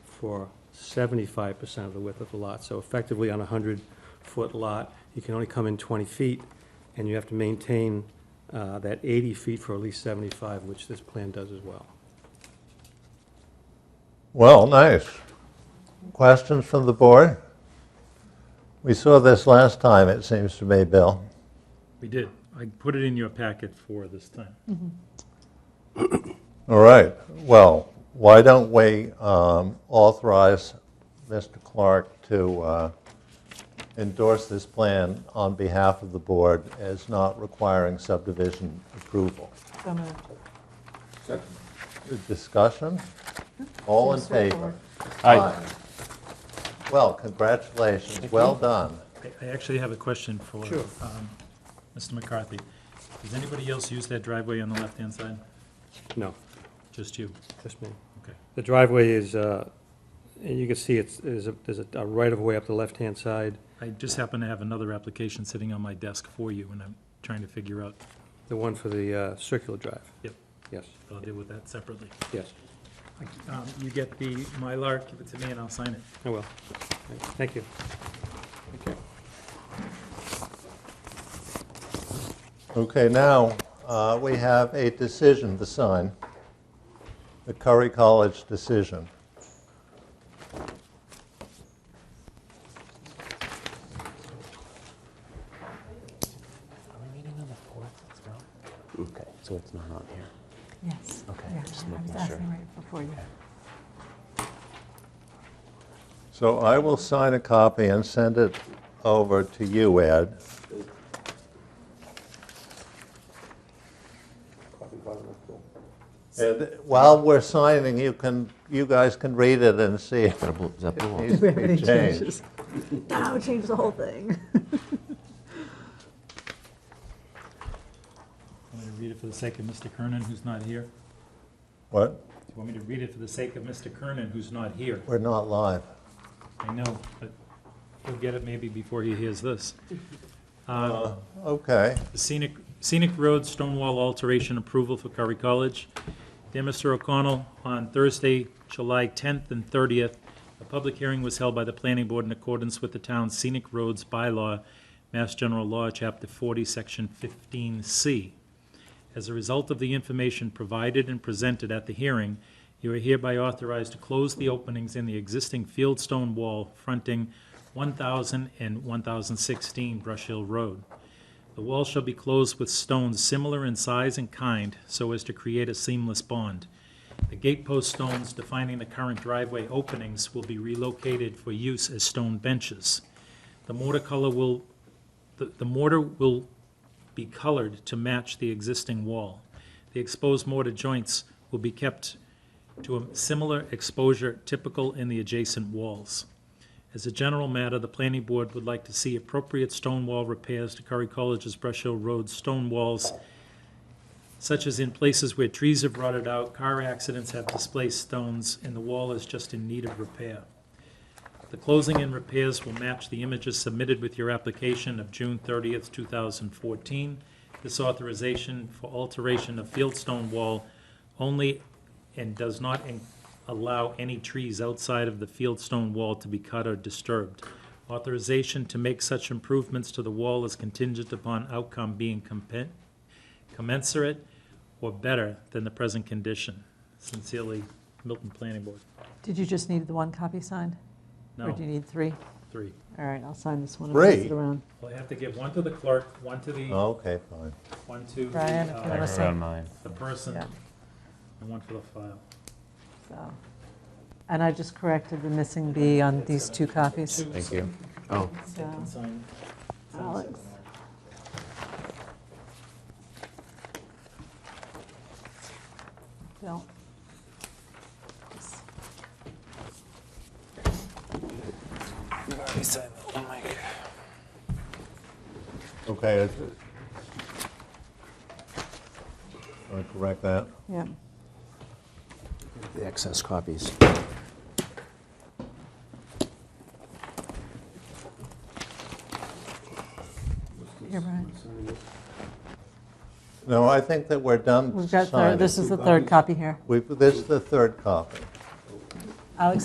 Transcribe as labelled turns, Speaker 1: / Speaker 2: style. Speaker 1: for seventy-five percent of the width of the lot. So effectively, on a hundred-foot lot, you can only come in twenty feet, and you have to maintain uh, that eighty feet for at least seventy-five, which this plan does as well.
Speaker 2: Well, nice. Questions from the board? We saw this last time, it seems to me, Bill.
Speaker 3: We did. I put it in your packet for this time.
Speaker 2: All right, well, why don't we um, authorize Mr. Clark to uh, endorse this plan on behalf of the board as not requiring subdivision approval?
Speaker 4: So moved.
Speaker 2: Discussion? All in
Speaker 4: Seems straightforward.
Speaker 2: favor? Aye. Well, congratulations, well done.
Speaker 3: I- I actually have a question for
Speaker 1: Sure.
Speaker 3: um, Mr. McCarthy. Does anybody else use that driveway on the left-hand side?
Speaker 1: No,
Speaker 3: Just you?
Speaker 1: just me.
Speaker 3: Okay.
Speaker 1: The driveway is, uh, and you can see it's, is a- there's a a right-of-way up the left-hand side.
Speaker 3: I just happen to have another application sitting on my desk for you, and I'm trying to figure out,
Speaker 1: The one for the uh, circular drive?
Speaker 3: Yep.
Speaker 1: Yes,
Speaker 3: I'll deal with that separately.
Speaker 1: yes,
Speaker 3: Um, You get the Mylar, give it to me, and I'll sign it.
Speaker 1: I will. Oh, Thank you.
Speaker 2: Okay, now, uh, we have a decision to sign, the Curry College decision.
Speaker 5: Are we meeting on the fourth as well? Okay, so it's not on here.
Speaker 4: Yes.
Speaker 5: Okay,
Speaker 4: Yeah,
Speaker 5: just
Speaker 4: I
Speaker 5: making
Speaker 4: was
Speaker 5: sure.
Speaker 4: asking right before you.
Speaker 2: So I will sign a copy and send it over to you, Ed. And while we're signing, you can, you guys can read it and see if
Speaker 5: Is that a blue- is that blue
Speaker 2: it
Speaker 5: one?
Speaker 2: needs to be changed.
Speaker 4: Now change the whole thing.
Speaker 3: Want me to read it for the sake of Mr. Kernan, who's not here?
Speaker 2: What?
Speaker 3: Do you want me to read it for the sake of Mr. Kernan, who's not here?
Speaker 2: We're not live.
Speaker 3: I know, but he'll get it maybe before he hears this. Uh,
Speaker 2: Okay,
Speaker 3: the Scenic, Scenic Road Stonewall Alteration Approval for Curry College. Dear Mr. O'Connell, on Thursday, July 10th and 30th, a public hearing was held by the planning board in accordance with the town's scenic roads bylaw, Mass General Law, Chapter 40, Section 15C. As a result of the information provided and presented at the hearing, you are hereby authorized to close the openings in the existing field stone wall fronting 1,000 and 1,016 Brush Hill Road. The wall shall be closed with stones similar in size and kind so as to create a seamless bond. The gatepost stones defining the current driveway openings will be relocated for use as stone benches. The mortar color will, the the mortar will be colored to match the existing wall. The exposed mortar joints will be kept to a similar exposure typical in the adjacent walls. As a general matter, the planning board would like to see appropriate stone wall repairs to Curry College's Brush Hill Road stone walls, such as in places where trees have rotted out, car accidents have displaced stones, and the wall is just in need of repair. The closing and repairs will match the images submitted with your application of June 30th, 2014. This authorization for alteration of field stone wall only and does not in- allow any trees outside of the field stone wall to be cut or disturbed. Authorization to make such improvements to the wall is contingent upon outcome being compen- commensurate or better than the present condition. Sincerely, Milton Planning Board.
Speaker 4: Did you just need the one copy signed? Or
Speaker 3: No,
Speaker 4: do you need three?
Speaker 3: three.
Speaker 4: All right, I'll sign this one and pass it
Speaker 2: Three?
Speaker 4: around.
Speaker 3: Well, I have to give one to the clerk, one to
Speaker 5: Oh.
Speaker 3: the,
Speaker 2: okay, fine.
Speaker 3: one to the,
Speaker 4: Brian, if you
Speaker 3: uh,
Speaker 4: wanna
Speaker 5: Right around mine.
Speaker 3: the person,
Speaker 4: Yeah.
Speaker 3: and one for the file.
Speaker 4: So, And I just corrected the missing B on these two copies.
Speaker 3: Two,
Speaker 5: Thank
Speaker 3: so
Speaker 5: you. Oh,
Speaker 3: they
Speaker 4: So,
Speaker 3: can sign- sign
Speaker 4: Alex.
Speaker 3: somewhere.
Speaker 4: Bill.
Speaker 2: Okay. it's- Want to correct that?
Speaker 4: Yeah,
Speaker 5: the excess copies.
Speaker 4: here, Brian.
Speaker 2: No, I think that we're done
Speaker 4: We've got, third-
Speaker 2: signing.
Speaker 4: this is the third copy here.
Speaker 2: We've- This is the third copy.
Speaker 4: Alex,